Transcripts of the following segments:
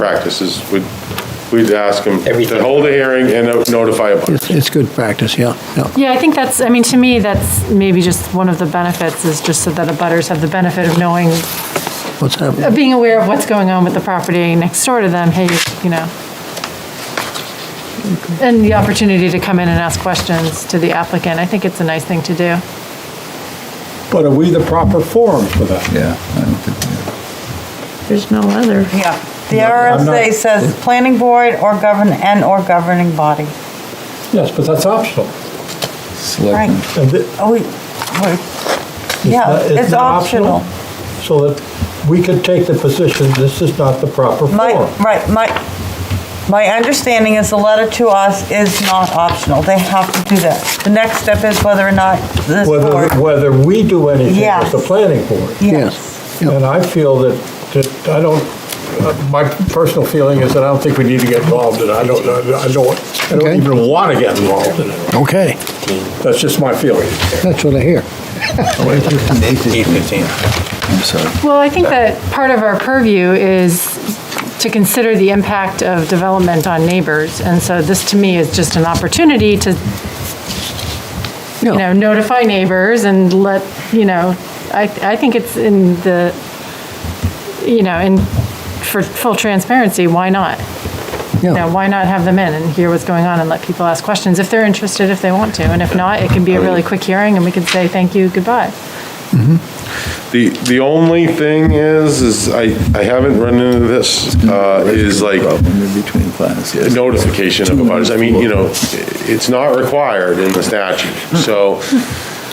practice is, we'd, we'd ask him Everything. to hold a hearing and notify a butter. It's, it's good practice, yeah, yeah. Yeah, I think that's, I mean, to me, that's maybe just one of the benefits, is just so that the butters have the benefit of knowing, What's Uh, happening? of being aware of what's going on with the property next door to them, hey, you know. And the opportunity to come in and ask questions to the applicant, I think it's a nice thing to do. But are we the proper forum for that? Yeah, I don't think, There's no other. Yeah, the I'm not- RSA says planning board or govern, and/or governing body. Yes, but that's optional. yeah. Selectmen. Right. And thi- Oh, we, we're- yeah, not- it's not optional. So that we could take the position, this is not the proper My, forum. right, my, my understanding is the letter to us is not optional. They have to do that. The next step is whether or not this Whether, board. whether we do anything with the Yes. planning board. Yes. Yeah. And I feel that, that I don't, uh, my personal feeling is that I don't think we need to get involved in it. I don't, I don't, I Okay. don't even want to get involved in it. Okay, That's just my feeling. that's what I hear. I'm sorry. Well, I think that part of our purview is to consider the impact of development on neighbors, and so this, to me, is just an opportunity to, you know, Yeah, notify neighbors and let, you know, I, I think it's in the, you know, in, for full transparency, why not? You know, yeah, why not have them in and hear what's going on and let people ask questions if they're interested, if they want to, and if not, it can be a really quick hearing and we can say thank you, goodbye. The, the only thing is, is I, I haven't run into this, uh, is like Problem in between plans, yes. notification of abutters. I mean, you know, it's not required in the statute. So,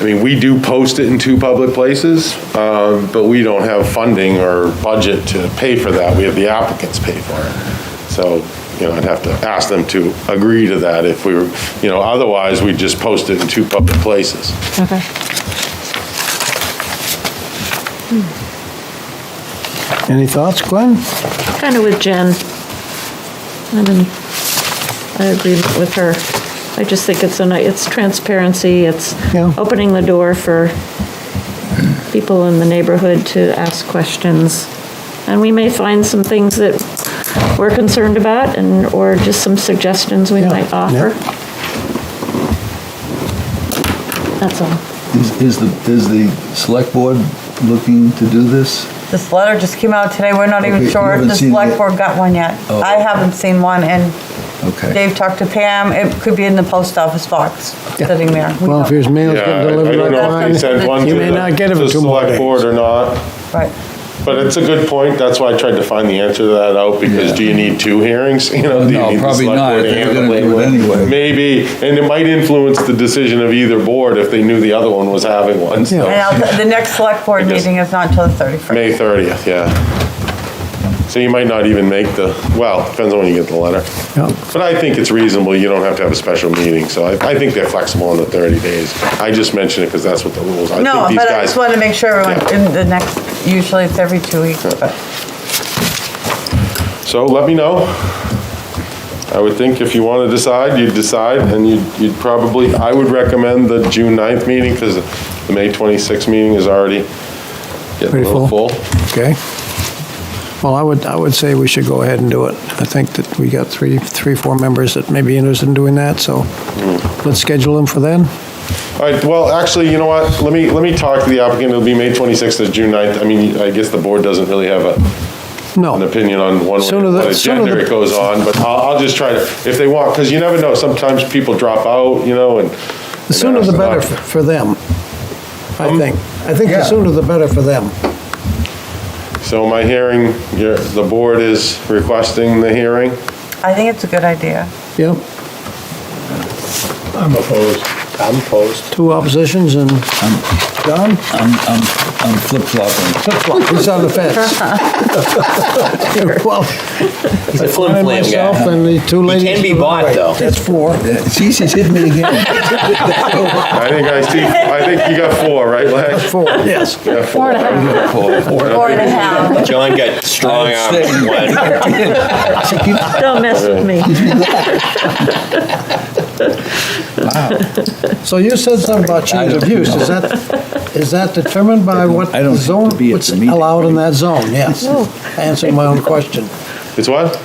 I mean, we do post it in two public places, um, but we don't have funding or budget to pay for that. We have the applicants pay for it. So, you know, I'd have to ask them to agree to that if we were, you know, otherwise we'd just post it in two public places. Okay. any thoughts, Glenn? Kind of with Jen. I'm in agreement with her. I just think it's a, ni- it's transparency, it's Yeah. opening the door for people in the neighborhood to ask questions. And we may find some things that we're concerned about and, or just some suggestions we Yeah, might offer. That's all. Is, is the, is the select board looking to do this? This letter just came out today. We're not Okay, even you sure if haven't the seen select it. board got one yet. Oh. I haven't seen one, and Okay. Dave talked to Pam. It could be in the post office box, sitting there. We Well, if don't- his mail's Yeah, I I getting don't delivered know if they online, sent one to you may the not get to him the in two more select days. board or not. Right. But it's a good point, that's why I tried to find the answer to that out, because Yeah. do you need two hearings? You know, do you No, need the probably select not. board to They're handle gonna do it anyway. Maybe, and it might influence the decision of either board if they knew the other one was having one, so, Yeah. And I'll- the next select board I guess- meeting is not until the 31st. May 30th, yeah. So you might not even make the, well, depends on when you get the letter. Yeah. But I think it's reasonable, you don't have to have a special meeting, so I, I think they're flexible on the 30 days. I just mentioned it because that's what the rules, I No, think these but I guys. just want to make sure everyone, Yeah. in the next, usually it's every two weeks, but So let me know. I would think if you want to decide, you'd decide, and you'd, you'd probably, I would recommend the June 9th meeting, because the May 26th meeting is already getting a Pretty little full. Okay. Well, I would, I would say we should go ahead and do it. I think that we got three, three, four members that may be interested in doing that, so Hmm. let's schedule them for then. All right, well, actually, you know what, let me, let me talk to the applicant, it'll be May 26th or June 9th. I mean, I guess the board doesn't really have a, an No, opinion on one way, Sooner the- what sooner agenda the- it goes on, but I'll, I'll just try to, if they want, because you never know, sometimes people drop out, you know, and. the sooner the better f- for them, I Um, think. I think the yeah. sooner the better for them. So my hearing, your- the board is requesting the hearing? I think it's a good idea. Yep, I'm opposed. I'm opposed. two oppositions and Don, I'm, I'm, I'm flip-flopping. he's on the fence. Well, He's a flim I flam myself guy. and the two He ladies. can be to the bought, right. though. That's four. Yeah, See, she's hit me again. I think I see, I think you got four, right, Lex? Four, yes. Four and a half. Four and a half. John got strong arm one. Don't mess with me. So you said something about change of use, is that, is that determined by what I don't have to zone, be at what's the meeting. allowed in that zone, yes? Answering my own question. It's what?